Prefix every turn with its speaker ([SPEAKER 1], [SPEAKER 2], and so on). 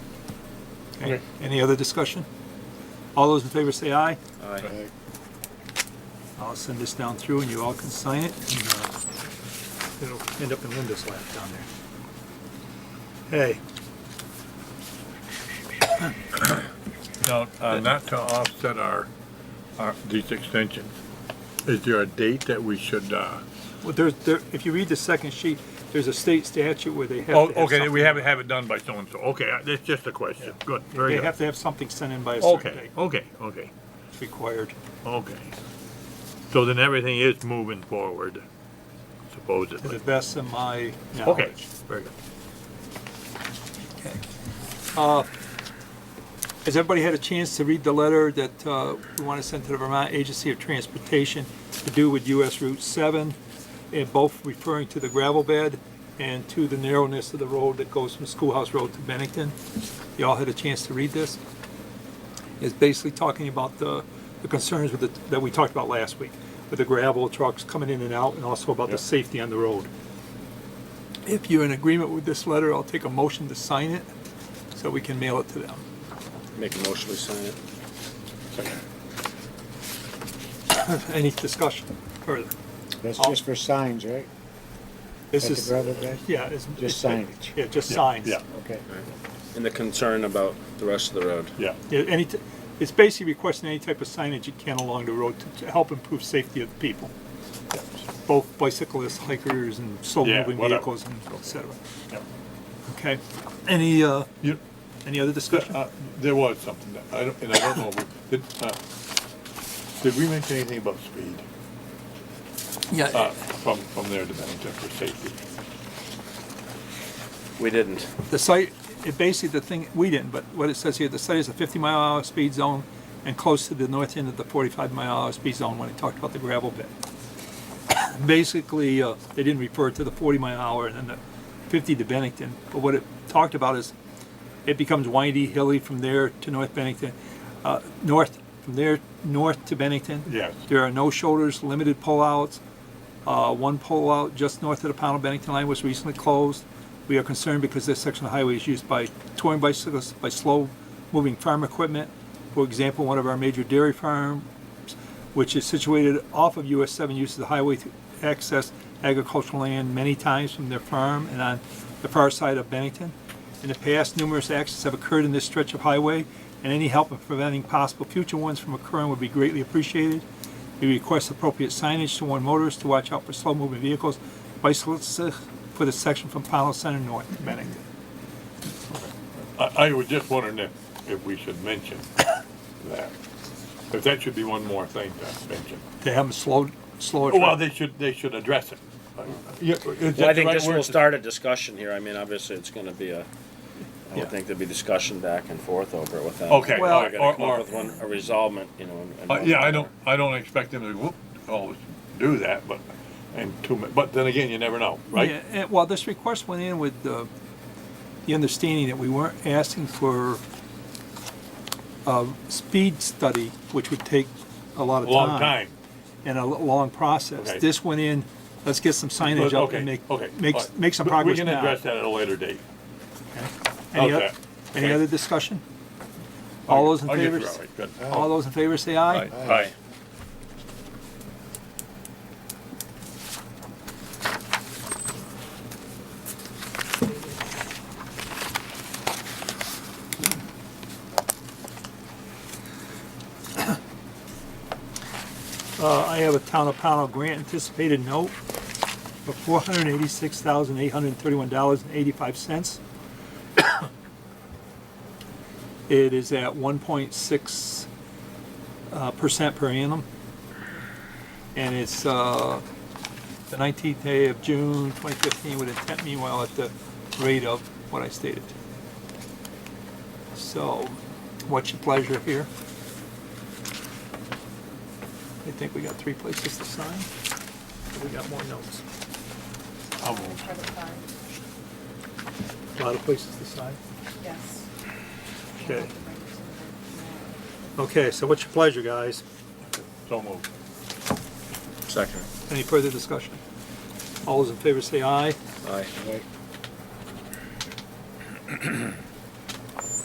[SPEAKER 1] Okay.
[SPEAKER 2] Okay.
[SPEAKER 1] Any other discussion? All those in favor say aye.
[SPEAKER 3] Aye.
[SPEAKER 1] I'll send this down through and you all can sign it. and, uh, It'll end up in Linda's lap down there. Hey,
[SPEAKER 2] Now, uh, not to offset our, our, these extensions, is there a date that we should, uh?
[SPEAKER 1] well, there's, there, if you read the second sheet, there's a state statute where they have to
[SPEAKER 2] Oh,
[SPEAKER 1] have
[SPEAKER 2] okay, we
[SPEAKER 1] something-
[SPEAKER 2] haven't, have it done by so-and-so, okay, uh, that's just a question, good, very
[SPEAKER 1] They
[SPEAKER 2] good.
[SPEAKER 1] have to have something sent in by a certain
[SPEAKER 2] Okay,
[SPEAKER 1] date.
[SPEAKER 2] okay, okay,
[SPEAKER 1] It's required.
[SPEAKER 2] okay. So then everything is moving forward,
[SPEAKER 1] to
[SPEAKER 2] supposedly.
[SPEAKER 1] the best of my
[SPEAKER 2] Okay,
[SPEAKER 1] knowledge.
[SPEAKER 2] very good.
[SPEAKER 1] Okay. Uh, Has everybody had a chance to read the letter that uh, we want to send to the Vermont Agency of Transportation to do with US Route 7, and both referring to the gravel bed and to the narrowness of the road that goes from Schoolhouse Road to Bennington? Y'all had a chance to read this? It's basically talking about the the concerns with the, that we talked about last week, with the gravel trucks coming in and out, and also about the safety on the road. If you're in agreement with this letter, I'll take a motion to sign it so we can mail it to them.
[SPEAKER 3] Make a motion, we sign it.
[SPEAKER 1] Any discussion further?
[SPEAKER 4] That's
[SPEAKER 1] All-
[SPEAKER 4] just for signs, right?
[SPEAKER 1] This
[SPEAKER 4] At the
[SPEAKER 1] is,
[SPEAKER 4] gravel bed?
[SPEAKER 1] yeah, it's. it's-
[SPEAKER 4] Just signage.
[SPEAKER 1] Yeah, just signs.
[SPEAKER 2] Yeah,
[SPEAKER 4] Okay.
[SPEAKER 3] And the concern about the rest of the road.
[SPEAKER 2] yeah,
[SPEAKER 1] Yeah, any, t- it's basically requesting any type of signage you can along the road to- to help improve safety of the people. Both bicyclists, hikers, and slow
[SPEAKER 2] Yeah,
[SPEAKER 1] moving
[SPEAKER 2] whatever.
[SPEAKER 1] vehicles, and et cetera.
[SPEAKER 2] yeah.
[SPEAKER 1] Okay, any, uh,
[SPEAKER 2] You,
[SPEAKER 1] any other discussion?
[SPEAKER 2] Uh, There was something, that- I don't, and I don't know, if we- did, uh, did we mention anything about speed, uh,
[SPEAKER 1] Yeah,
[SPEAKER 2] from, from there to Bennington for safety?
[SPEAKER 3] We didn't.
[SPEAKER 1] the site, it basically, the thing, we didn't, but what it says here, the site is a fifty mile an hour speed zone and close to the north end of the forty-five mile an hour speed zone when it talked about the gravel pit. Basically, uh, they didn't refer to the forty mile an hour and then the fifty to Bennington, but what it talked about is it becomes windy, hilly from there to North Bennington, uh, north, from there, north to Bennington.
[SPEAKER 2] Yes.
[SPEAKER 1] There are no shoulders, limited pullouts. Uh, one pullout just north of the Pownell Bennington line was recently closed. We are concerned because this section of highway is used by touring bicyclists, by slow-moving farm equipment. For example, one of our major dairy farms, which is situated off of US seven, uses the highway to access agricultural land many times from their farm and on the far side of Bennington. In the past, numerous accidents have occurred in this stretch of highway, and any help in preventing possible future ones from occurring would be greatly appreciated. We request appropriate signage to warn motorists to watch out for slow-moving vehicles, bicyclists uh, for the section from Powell Center north to Bennington.
[SPEAKER 2] I, I was just wondering if, if we should mention that, if that should be one more thing to mention. Oh,
[SPEAKER 1] They haven't slowed, slowed.
[SPEAKER 2] Well, they should, they should address it. Yeah, is that
[SPEAKER 3] Well, I
[SPEAKER 2] the
[SPEAKER 3] think
[SPEAKER 2] right
[SPEAKER 3] this
[SPEAKER 2] word
[SPEAKER 3] will
[SPEAKER 2] to-
[SPEAKER 3] start a discussion here. I mean, obviously, it's gonna be a, I
[SPEAKER 1] Yeah.
[SPEAKER 3] would think there'd be discussion back and forth over it with them.
[SPEAKER 2] Okay,
[SPEAKER 1] Well-
[SPEAKER 2] all right,
[SPEAKER 3] We're
[SPEAKER 2] or-
[SPEAKER 3] gonna come
[SPEAKER 2] or-
[SPEAKER 3] up with one, a resolvement, you know. and- and
[SPEAKER 2] Uh,
[SPEAKER 3] one-
[SPEAKER 2] yeah, I don't, I don't expect them to, whoop, always do that, but, and too, mu- but then again, you never know,
[SPEAKER 1] Yeah,
[SPEAKER 2] right?
[SPEAKER 1] and, well, this request went in with the, the understanding that we weren't asking for a speed study, which would take a lot of time.
[SPEAKER 2] Long time.
[SPEAKER 1] And a lo- long process.
[SPEAKER 2] Okay.
[SPEAKER 1] This went in, let's get some signage up
[SPEAKER 2] Okay,
[SPEAKER 1] and make,
[SPEAKER 2] okay.
[SPEAKER 1] make,
[SPEAKER 2] all right.
[SPEAKER 1] make some
[SPEAKER 2] But
[SPEAKER 1] progress
[SPEAKER 2] We can
[SPEAKER 1] now.
[SPEAKER 2] address that at a later date.
[SPEAKER 1] Any
[SPEAKER 2] Okay.
[SPEAKER 1] oth- Any
[SPEAKER 2] Okay.
[SPEAKER 1] other discussion? All those in
[SPEAKER 2] I'll get
[SPEAKER 1] favor,
[SPEAKER 2] you out, right, good.
[SPEAKER 1] all those in favor say aye.
[SPEAKER 2] Aye, aye.
[SPEAKER 1] Uh, I have a Town of Pownell grant anticipated note for four hundred and eighty-six thousand, eight hundred and thirty-one dollars and eighty-five cents. It is at one point six, uh, percent per annum. And it's, uh, the nineteenth day of June, twenty fifteen, with intent meanwhile at the rate of what I stated. So, what's your pleasure here? I think we got three places to sign. We got more notes.
[SPEAKER 2] I'll move.
[SPEAKER 5] For the farm,
[SPEAKER 1] A lot of places to sign.
[SPEAKER 5] yes.
[SPEAKER 1] Okay. Okay, so what's your pleasure, guys?
[SPEAKER 2] So moved.
[SPEAKER 3] Second.
[SPEAKER 1] Any further discussion? All those in favor say aye.
[SPEAKER 3] Aye.
[SPEAKER 4] Right.